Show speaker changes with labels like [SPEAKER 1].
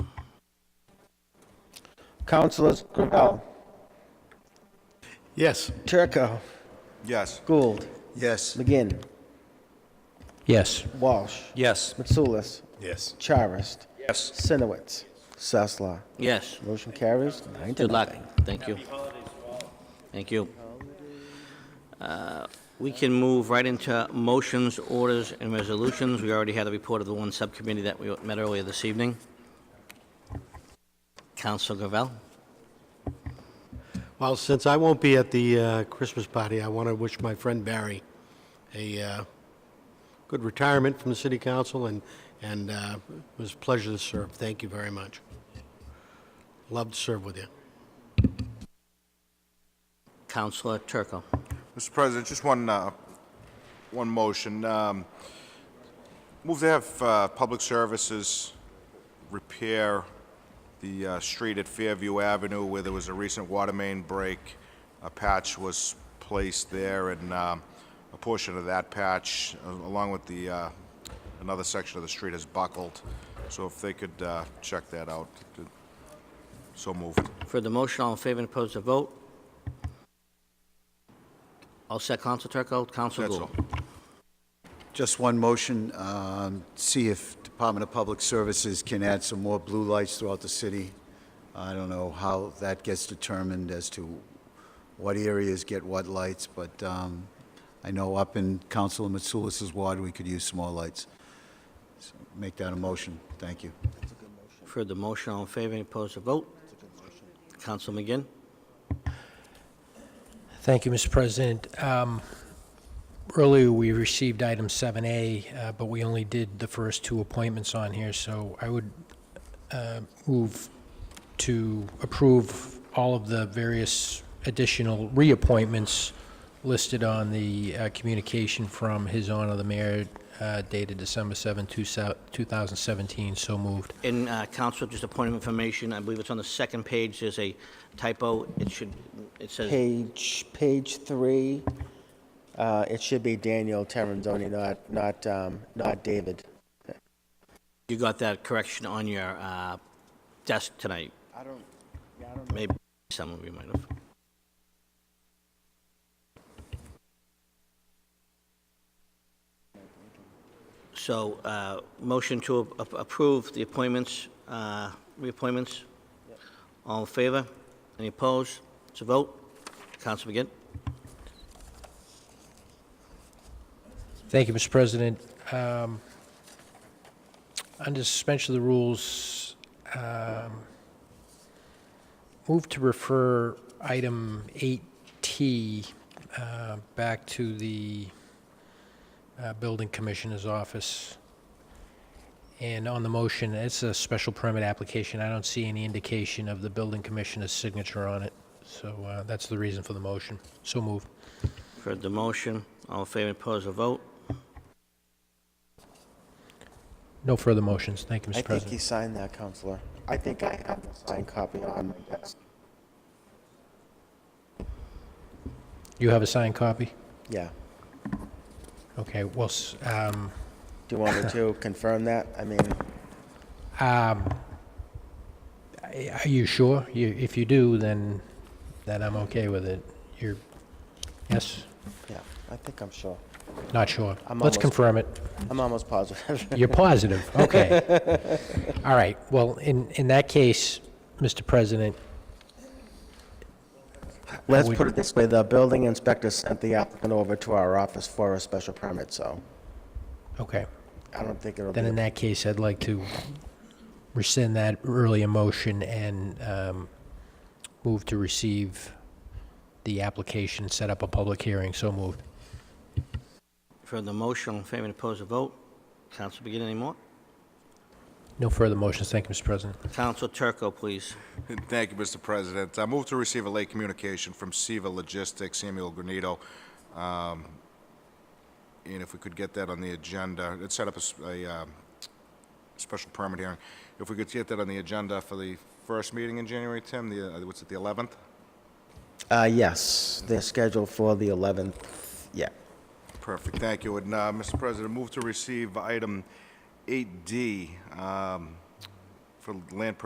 [SPEAKER 1] Councilors Gravel,
[SPEAKER 2] Yes.
[SPEAKER 1] Turco,
[SPEAKER 3] Yes.
[SPEAKER 1] Gould,
[SPEAKER 3] Yes.
[SPEAKER 1] McGinn,
[SPEAKER 4] Yes.
[SPEAKER 1] Walsh,
[SPEAKER 4] Yes.
[SPEAKER 1] Mitsoulas,
[SPEAKER 2] Yes.
[SPEAKER 1] Charist,
[SPEAKER 4] Yes.
[SPEAKER 1] Sinowitz, Sasla.
[SPEAKER 4] Yes.
[SPEAKER 1] Motion carries nine to
[SPEAKER 4] Good luck.
[SPEAKER 1] nothing.
[SPEAKER 4] Thank you. Thank you. Uh, We can move right into motions, orders, and resolutions. We already had a report of the one subcommittee that we met earlier this evening. Counsel Gravel?
[SPEAKER 2] Well, since I won't be at the uh, Christmas party, I want to wish my friend Barry a uh, good retirement from the city council, and, and uh, it was a pleasure to serve. Thank you very much. Love to serve with you.
[SPEAKER 4] Counselor Turco?
[SPEAKER 3] Mr. President, just one, uh, one motion. Um, Move to have uh, Public Services repair the uh, street at Fairview Avenue where there was a recent water main break. A patch was placed there, and um, a portion of that patch, a- along with the, uh, another section of the street has buckled. So if they could uh, check that out, th- so moved.
[SPEAKER 4] For the motion, all in favor and opposed to vote? All set, Counsel Turco? Counsel
[SPEAKER 3] That's
[SPEAKER 4] Gould?
[SPEAKER 3] all.
[SPEAKER 5] Just one motion, um, see if Department of Public Services can add some more blue lights throughout the city. I don't know how that gets determined as to what areas get what lights, but um, I know up in Council Mitsoulas' ward, we could use some more lights. So Make that a motion. Thank you.
[SPEAKER 4] For the motion, all in favor and opposed to vote? Counsel McGinn?
[SPEAKER 6] Thank you, Mr. President. Um, Earlier, we received item 7A, uh, but we only did the first two appointments on here, so I would uh, move to approve all of the various additional reappointments listed on the uh, communication from His Honor the Mayor uh, dated December 7, 2017. So moved.
[SPEAKER 4] In uh, counsel, just a point of information, I believe it's on the second page, there's a typo, it should, it says,
[SPEAKER 1] Page, page three, uh, it should be Daniel Terrenzoni, not, not, um, not David.
[SPEAKER 4] you got that correction on your uh, desk tonight. I don't, yeah, I don't Maybe someone of you might have. So, uh, motion to a- a- approve the appointments, uh, reappointments. All in favor? Any opposed? It's a vote. Counsel McGinn?
[SPEAKER 6] Thank you, Mr. President. Um, Under suspension of the rules, um, move to refer item 8T uh, back to the uh, Building Commissioner's office. And on the motion, it's a special permit application. I don't see any indication of the Building Commissioner's signature on it. So uh, that's the reason for the motion. So moved.
[SPEAKER 4] For the motion, all in favor, opposed, a vote.
[SPEAKER 6] No further motions. Thank
[SPEAKER 1] I
[SPEAKER 6] you, Mr.
[SPEAKER 1] think he
[SPEAKER 6] President.
[SPEAKER 1] signed that, Counselor. I think I have the signed copy on my desk.
[SPEAKER 6] You have a signed copy?
[SPEAKER 1] Yeah.
[SPEAKER 6] Okay, well, s- um,
[SPEAKER 1] Do you want me to confirm that? I mean,
[SPEAKER 6] um, I- are you sure? You, if you do, then, then I'm okay with it. You're, yes,
[SPEAKER 1] yeah, I think I'm sure.
[SPEAKER 6] not sure?
[SPEAKER 1] I'm
[SPEAKER 6] Let's
[SPEAKER 1] almost-
[SPEAKER 6] confirm it.
[SPEAKER 1] I'm almost positive.
[SPEAKER 6] You're positive, okay. All right, well, in, in that case, Mr. President,
[SPEAKER 1] Let's
[SPEAKER 6] We-
[SPEAKER 1] put it this way, the building inspector sent the applicant over to our office for a special permit, so
[SPEAKER 6] okay.
[SPEAKER 1] I don't think it'll be.
[SPEAKER 6] Then in that case, I'd like to rescind that earlier motion and um, move to receive the application, set up a public hearing, so moved.
[SPEAKER 4] For the motion, all in favor, opposed, a vote. Counsel begin any more?
[SPEAKER 6] No further motions, thank you, Mr. President.
[SPEAKER 4] Counsel Turco, please.
[SPEAKER 3] Thank you, Mr. President. I move to receive a late communication from Seva Logistics, Samuel Granito. Um, And if we could get that on the agenda, it set up a s- a, um, special permit hearing. If we could get that on the agenda for the first meeting in January, Tim, the, uh, what's it, the 11th?
[SPEAKER 1] Uh, yes, they're scheduled for the 11th, yeah.
[SPEAKER 3] Perfect, thank you. And, uh, Mr. President, move to receive item 8D um, for land